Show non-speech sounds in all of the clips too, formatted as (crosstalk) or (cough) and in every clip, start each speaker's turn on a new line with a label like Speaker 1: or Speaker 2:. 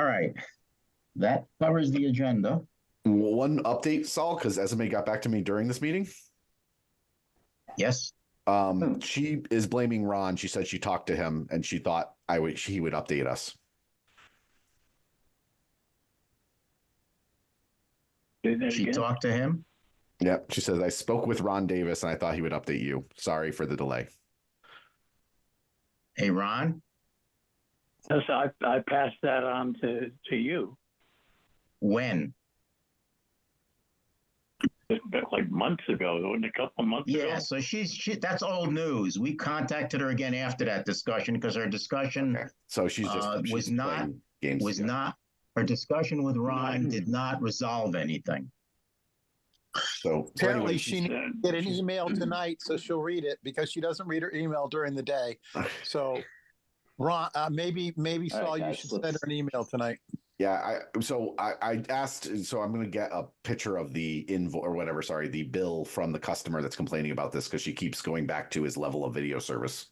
Speaker 1: right. That covers the agenda.
Speaker 2: One update, Saul, because Esme got back to me during this meeting.
Speaker 1: Yes,
Speaker 2: Um, she is blaming Ron. She said she talked to him and she thought I would she would update us.
Speaker 3: Say that
Speaker 1: she
Speaker 3: again.
Speaker 1: talked to him.
Speaker 2: Yep. She says I spoke with Ron Davis and I thought he would update you. Sorry for the delay.
Speaker 1: Hey, Ron,
Speaker 3: Yes, I, I passed that on to, to you,
Speaker 1: when?
Speaker 3: It's been like months ago, wasn't it? a couple of months ago.
Speaker 1: Yeah, so she's, she, that's old news. We contacted her again after that discussion because her discussion
Speaker 2: Okay. So she's just
Speaker 1: Uh,
Speaker 2: she's
Speaker 1: was not-
Speaker 2: playing games.
Speaker 1: was
Speaker 2: Yeah.
Speaker 1: not, her discussion with Ron
Speaker 3: Right.
Speaker 1: did not resolve anything.
Speaker 2: so so
Speaker 4: Apparently
Speaker 2: anyway,
Speaker 4: she needs
Speaker 3: Then-
Speaker 4: to
Speaker 3: (laughs)
Speaker 4: get an (laughs) email tonight, so she'll read it because she doesn't read her email during the day. So Ron, uh, maybe, maybe
Speaker 5: All right,
Speaker 4: Saul, you
Speaker 5: guys,
Speaker 4: should send
Speaker 5: let's-
Speaker 4: her an email tonight.
Speaker 2: Yeah, I so I, I asked so I'm gonna get a picture of the invoice or whatever, sorry, the bill from the customer that's complaining about this because she keeps going back to his level of video service.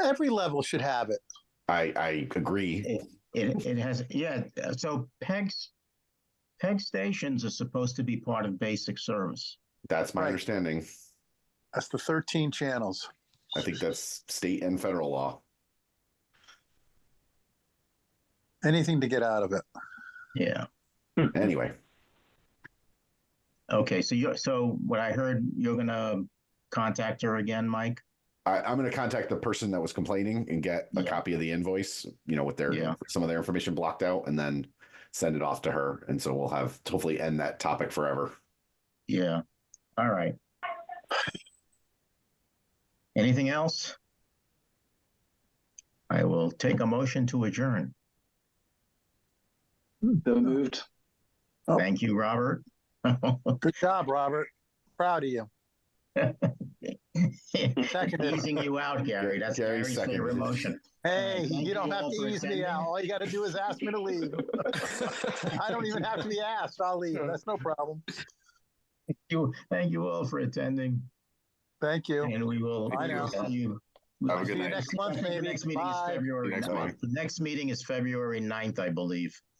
Speaker 4: Every level should have it.
Speaker 2: I I agree.
Speaker 1: It, it has, yeah, so PEG's, PEG stations are supposed to be part of basic service.
Speaker 2: That's my
Speaker 4: Right.
Speaker 2: understanding.
Speaker 4: That's the thirteen channels.
Speaker 2: I think that's state and federal law.
Speaker 4: Anything to get out of it.
Speaker 1: Yeah.
Speaker 2: Anyway,
Speaker 1: Okay, so you, so what I heard, you're gonna contact her again, Mike?
Speaker 2: I, I'm going to contact the person that was complaining and get a
Speaker 1: Yeah.
Speaker 2: copy of the invoice, you know, with their
Speaker 1: Yeah.
Speaker 2: some of their information blocked out, and then send it off to her. And so we'll have hopefully end that topic forever.
Speaker 1: Yeah, all right. Anything else? I will take a motion to adjourn.
Speaker 5: So moved.
Speaker 4: Oh.
Speaker 1: Thank you, Robert.
Speaker 4: Good job, Robert. Proud of you.
Speaker 1: (laughs)
Speaker 4: Seconded.
Speaker 1: Easing you out, Gary, that's
Speaker 2: Gary
Speaker 1: Gary's favorite
Speaker 2: seconded.
Speaker 1: motion.
Speaker 4: Hey,
Speaker 1: Thank
Speaker 4: you don't
Speaker 1: you all
Speaker 4: have
Speaker 1: for
Speaker 4: to ease me
Speaker 1: attending.
Speaker 4: out. All you got to do is ask me
Speaker 1: (laughs)
Speaker 4: to leave. I don't even have to be asked. I'll leave. That's no problem.
Speaker 1: You, thank you all for attending,
Speaker 4: Thank you.
Speaker 1: and we will.
Speaker 4: Bye
Speaker 1: we will
Speaker 4: now.
Speaker 1: see you-
Speaker 6: Have a good
Speaker 4: See you
Speaker 6: night.
Speaker 4: next month,
Speaker 1: The
Speaker 4: maybe.
Speaker 1: Next meeting is
Speaker 4: Bye.
Speaker 1: February.
Speaker 6: Next
Speaker 1: ninth.
Speaker 6: month.
Speaker 1: The next meeting is February ninth, I believe.